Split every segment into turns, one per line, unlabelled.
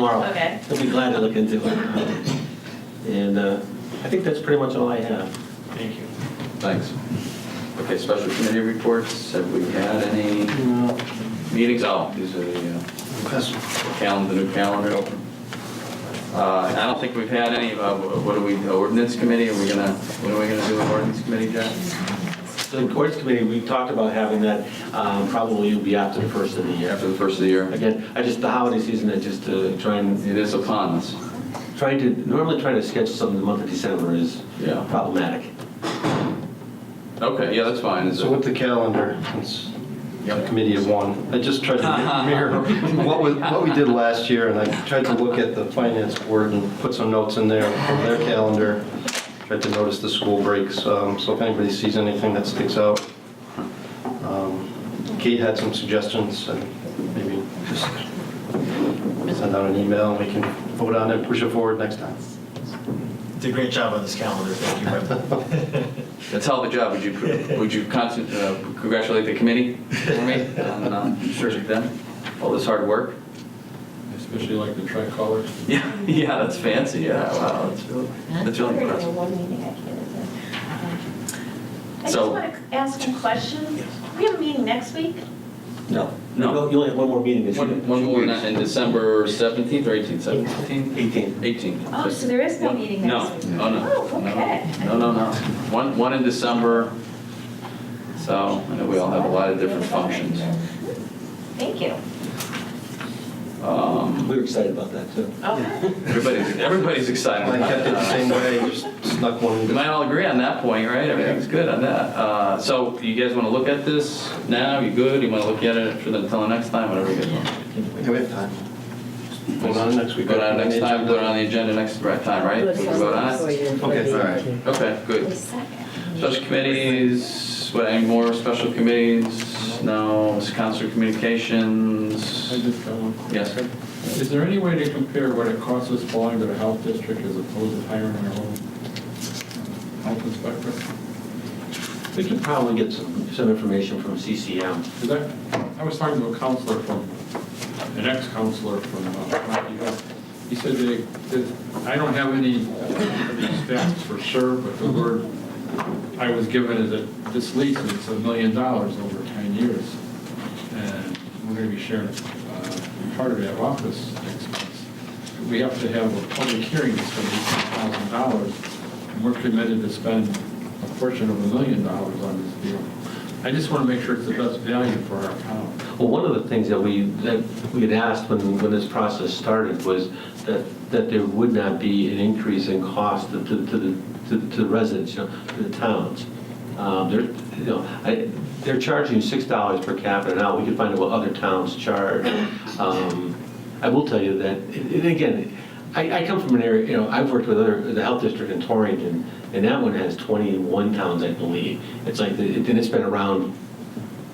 tomorrow.
Okay.
I'll be glad to look into it. Um, And uh, I think that's pretty much all I have.
Thank you.
Thanks. Okay, special committee reports, have we had any
No.
meetings? Oh, these are the uh, calendar, the new calendar open. Uh, I don't think we've had any, uh, what are we, ordinance committee, are we gonna, what are we gonna do with ordinance committee, Jack?
The courts committee, we talked about having that, um, probably will be after the first of the year.
After the first of the year?
Again, I just, the holiday season, I just uh, try and,
It is upon us.
trying to, normally trying to schedule something in the month of December is
Yeah.
problematic.
Okay, yeah, that's fine. Is
So
it-
with the calendar, it's a
Yep.
committee of one. I just tried to mirror what we, what we did last year, and I tried to look at the finance board and put some notes in there from their calendar. Tried to notice the school breaks, um, so if anybody sees anything that sticks out. Um, Kate had some suggestions, and maybe just send out an email, and we can vote on it, push it forward next time.
Did a great job on this calendar, thank you, Rep.
That's how the job, would you, would you constant- uh, congratulate the committee for me on uh, what you've done? all this hard work?
Especially like the tricolor.
Yeah, yeah, that's fancy, yeah, wow, that's really, that's really
We're gonna do
impressive.
one meeting, I can't attend. Um, I just
So-
want to ask a question. We have a meeting next week?
No.
No.
You only have one more meeting this year.
One, one more in in December 17th or 18th, 17th?
18.
18th.
Oh, so there is no meeting
No,
next week?
no, no.
Oh, okay.
No, no, no. One, one in December, so I know we all have a lot of different functions.
Thank you.
Um,
We were excited about that, too.
Okay.
Everybody's, everybody's excited
I
about
kept it the
that.
same way, just snuck one. in.
We might all agree on that point, right? Everything's good on that. Uh, So you guys want to look at this now? You good? You want to look at it for the, until the next time, whatever you guys want?
Yeah, we have time. Vote on it next
We
week.
go down next time, put it on the agenda next right time, right? We can vote on it?
Okay, all right.
Okay, good. Special committees, what, any more special committees? No, it's council
I
communications?
just got one.
Yes.
Is there any way to compare what it costs us belonging to the health district as opposed to hiring our own health inspector?
We could probably get some, some information from CCM.
Is that, I was talking to a counselor from, an ex-counselor from, uh, Rocky Hill. he said they, that- I don't have any stats for sure, but the word I was given is that this lease is a million dollars over 10 years, and we're going to be sharing uh, part of that office expense. We have to have a public hearing to spend $18,000, and we're committed to spend a portion of a million dollars on this deal. I just want to make sure it's the best value for our town.
Well, one of the things that we, that we had asked when, when this process started was that, that there would not be an increase in cost to, to to the, to to the residents, you know, to the towns. Um, They're, you know, I, they're charging six dollars per capita now, we could find out what other towns charge. Um, I will tell you that, and again, I, I come from an area, you know, I've worked with other, the health district in Torrington, and that one has twenty-one towns, I believe. It's like, and it's been around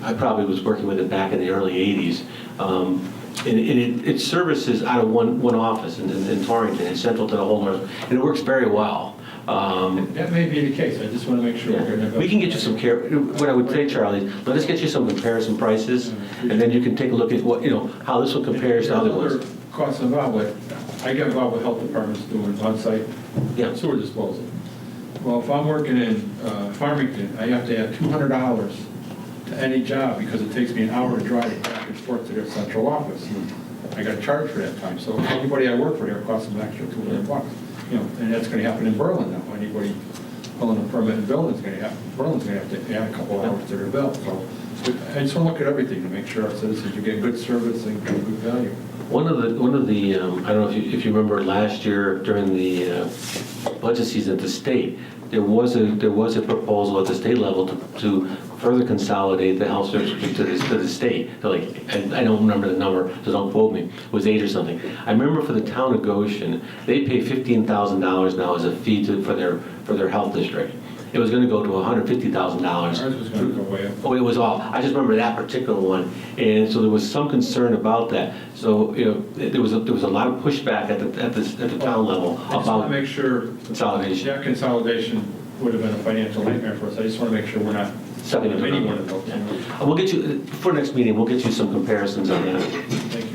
I probably was working with it back in the early 80s. Um, And and it it services out of one, one office in in- in Torrington, it's central to the whole, north, and it works very well. Um,
That may be the case, I just want to make sure. we're
yeah.
gonna-
We can get you some care, what I would say, Charlie, let us get you some comparison prices, and then you can take a look at what, you know, how this one compares to other
There's
ones.
other Costs involved with, I get involved with health departments doing on-site
Yeah.
sewer disposal. Well, if I'm working in uh, Farmington, I have to add two hundred dollars to any job because it takes me an hour to drive back and forth to their central office. I got charged for that time, so anybody I work for there costs them an extra two hundred bucks. You know, and that's gonna happen in Berlin now, anybody pulling a permit in Berlin's gonna have, Berlin's gonna have to add a couple hours to their bill, so. I just wanna look at everything to make sure our citizens are getting good service and good value.
One of the, one of the, um, I don't know if you, if you remember last year during the uh, budget season at the state, there was a, there was a proposal at the state level to, to further consolidate the health service to the, to the state. They're Like, I I don't remember the number, so don't quote me, it was eight or something. I remember for the town of Goshen, they pay fifteen thousand dollars now as a fee to, for their, for their health district. It was gonna go to hundred fifty thousand dollars.
Ours was gonna go way up.
Oh, it was all, I just remember that particular one, and so there was some concern about that. So, you know, there was, a- there was a lot of pushback at the, at the, at the town level
I just want to
about
make sure
consolidation.
that consolidation would have been a financial nightmare for us. I just want to make sure we're not
Something
any
about-
one of those. you know.
And We'll get you, for next meeting, we'll get you some comparisons on that.
Thank